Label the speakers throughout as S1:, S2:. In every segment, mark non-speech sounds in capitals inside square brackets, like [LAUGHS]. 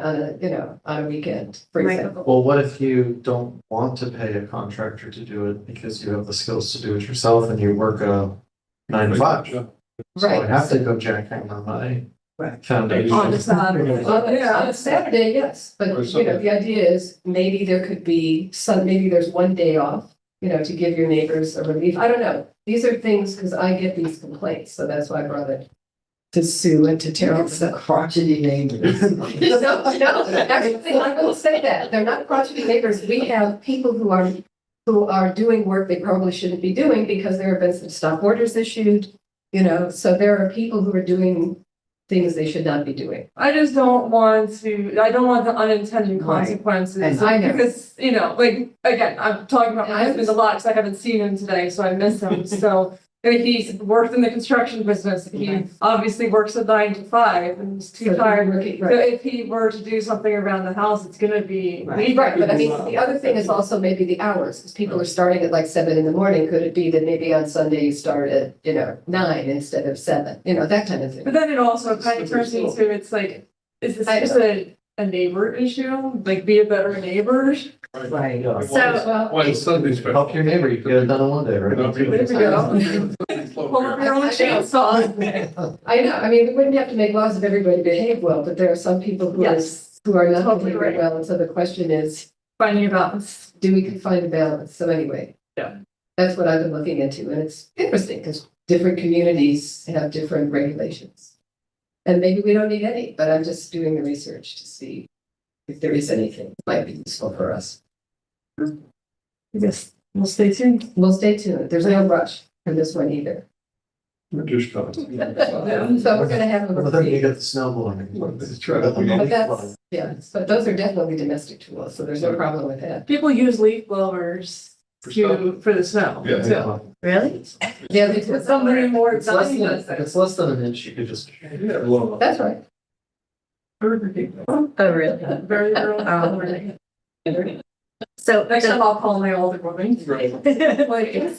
S1: on a, uh, you know, on a weekend, for
S2: Right.
S1: example.
S3: Well, what if you don't want to pay a contractor to do it because you have the skills to do it yourself and you work a nine to five? job? So I
S1: Right.
S3: have to go jackhammer on my
S2: Right.
S3: foundation.
S4: Oh,
S2: On the side.
S1: Well, Oh, yeah, on a Saturday, yes, but
S5: Or
S1: you know, the idea is maybe there could be some, maybe there's one day off, you know, to give your neighbors a relief. I don't know. These are things, because I get these complaints, so that's why I brought it to Sue and to Terrell.
S6: It's the crotchety neighbors.
S1: [LAUGHS] No, [LAUGHS] no, actually, I will say that. They're not crotchety neighbors. We have people who are, who are doing work they probably shouldn't be doing because there have been some stop orders issued. You know, so there are people who are doing things they should not be doing.
S4: I just don't want to, I don't want the unintended
S6: Right.
S4: consequences.
S6: And
S1: I know.
S4: Because, you know, like, again, I'm talking about my
S1: I
S4: husband a lot, because I haven't seen him today, so I miss
S1: [LAUGHS]
S4: him, so. I mean, he's worked in the construction business, he
S1: Right.
S4: obviously works a nine to five, and he's
S1: So
S4: too tired.
S1: working-
S4: So
S1: Right.
S4: if he were to do something around the house, it's gonna be.
S6: Right.
S4: legal.
S1: Right, but I mean, the other thing is also maybe the hours, because people are starting at like seven in the morning, could it be that maybe on Sunday you start at, you know, nine instead of seven, you know, that kind of
S4: But
S1: thing.
S4: then it also kind of
S5: Slippery
S4: turns
S5: slope.
S4: into, it's like, is this
S1: I
S4: just a, a neighbor issue, like be a better neighbor?
S6: Right.
S3: Yeah.
S2: So-
S1: Well,
S5: Why is Sunday special?
S3: Help your neighbor, you get it done in one day, right?
S5: There
S4: we go. Pull up
S5: go.
S4: your own chainsaw.
S1: I know, I mean, we wouldn't have to make laws if everybody behaved well, but there are some people who are,
S4: [LAUGHS] Yes,
S1: who are not
S4: Totally
S1: behaving
S4: right.
S1: well, and so the question is,
S4: finding a balance.
S1: do we can find a balance, so anyway.
S4: Yeah.
S1: That's what I've been looking into, and it's interesting, because different communities have different regulations. And maybe we don't need any, but I'm just doing the research to see if there is anything that might be useful for us.
S4: Yes, we'll stay tuned.
S1: We'll stay tuned, there's no rush for this one either.
S5: British country.
S1: So we're gonna have a
S3: Well, then you
S1: reprieve,
S3: get the snowballing.
S5: Let's try that.
S1: but that's, yeah, but those are definitely domestic tools, so there's no problem with that.
S4: People use leaf blowers
S5: For
S4: to, for the snow.
S5: Yeah.
S4: So
S6: Really?
S1: Yeah, they do it
S4: It's somebody
S1: somewhere.
S4: more
S3: It's less
S4: exotic
S3: than,
S4: than
S3: if
S4: that.
S3: it's less than an inch, you could just.
S5: Yeah, well,
S1: That's right,
S6: Oh, really?
S4: Very [LAUGHS]
S6: Oh.
S4: early.
S6: So,
S4: Next time I'll call my older woman.
S5: Right.
S4: Like,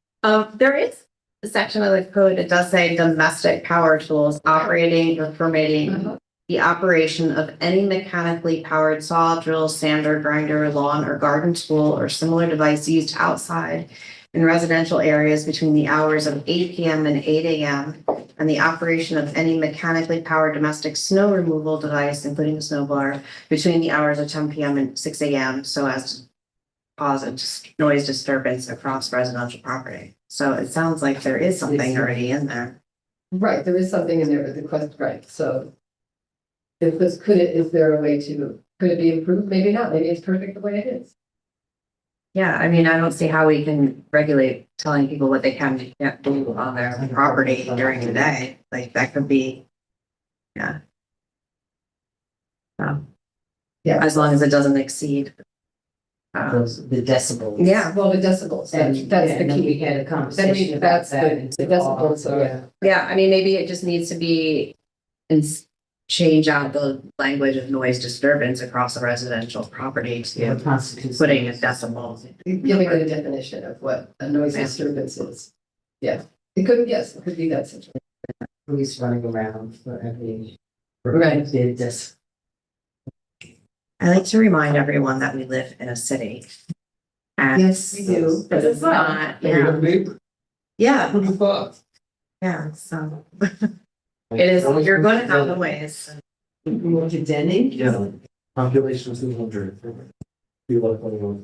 S6: [LAUGHS] um, there is a section of the code that does say domestic power tools operating or
S1: Uh-huh.
S6: permitting the operation of any mechanically powered saw, drill, sander, grinder, lawn, or garden tool or similar device used outside in residential areas between the hours of eight PM and eight AM and the operation of any mechanically powered domestic snow removal device, including a snow blower, between the hours of ten PM and six AM so as to cause a dis- noise disturbance across residential property. So it sounds like there is something already in there.
S1: right, there is something in there with the quest, right, so. If this, could it, is there a way to, could it be improved? Maybe not, maybe it's perfect the way it is.
S6: Yeah, I mean, I don't see how we can regulate telling people what they can and can't do on their property during the day. Like that could be, yeah. Um,
S1: Yeah.
S6: As long as it doesn't exceed. uh,
S7: those, the decibels.
S6: Yeah,
S1: Well, the decibels, that's,
S7: And,
S1: that's the
S7: and then we
S1: key.
S7: had a conversation about
S1: that's
S7: that.
S1: the- the
S7: and said, oh,
S1: decibels, so,
S7: yeah.
S6: yeah, I mean, maybe it just needs to be and s- change out the language of noise disturbance across a residential property to
S7: What constitutes-
S6: putting a decimal.
S1: Giving it a definition of what a noise
S6: Yeah.
S1: disturbance is. Yeah, it could, yes, it could be that situation.
S7: Police running around for every.
S1: Right.
S7: Did this.
S6: I like to remind everyone that we live in a city. And
S1: Yes, we do.
S6: But it's not, yeah, yeah,
S5: Who'd have thought?
S6: yeah, so it is, you're gonna have the ways.
S7: You want to Denny?
S3: Yeah, population two hundred. Be like one of those.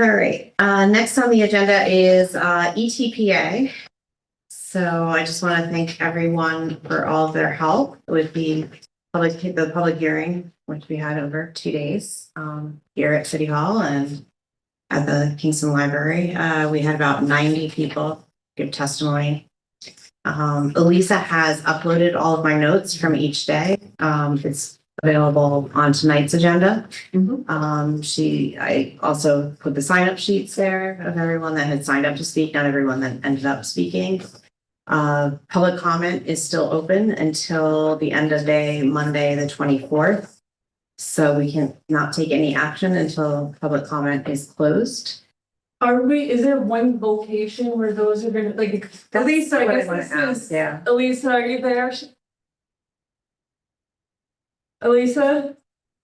S6: All right, uh, next on the agenda is, uh, ETPA. So I just want to thank everyone for all of their help with the public, the public hearing, which we had over two days, um, here at City Hall and at the Kingston Library. Uh, we had about ninety people give testimony. Um, Elisa has uploaded all of my notes from each day. Um, it's available on tonight's agenda. Um, she, I also put the sign up sheets there of everyone that had signed up to speak, not everyone that ended up speaking. Uh, public comment is still open until the end of day, Monday, the twenty-fourth. So we can not take any action until public comment is closed.
S4: Are we, is there one location where those are gonna, like,
S6: That's
S4: Elisa, I
S6: what
S4: guess
S6: wanna
S4: this
S6: ask,
S4: is-
S6: Yeah.
S4: Elisa, are you there? Elisa?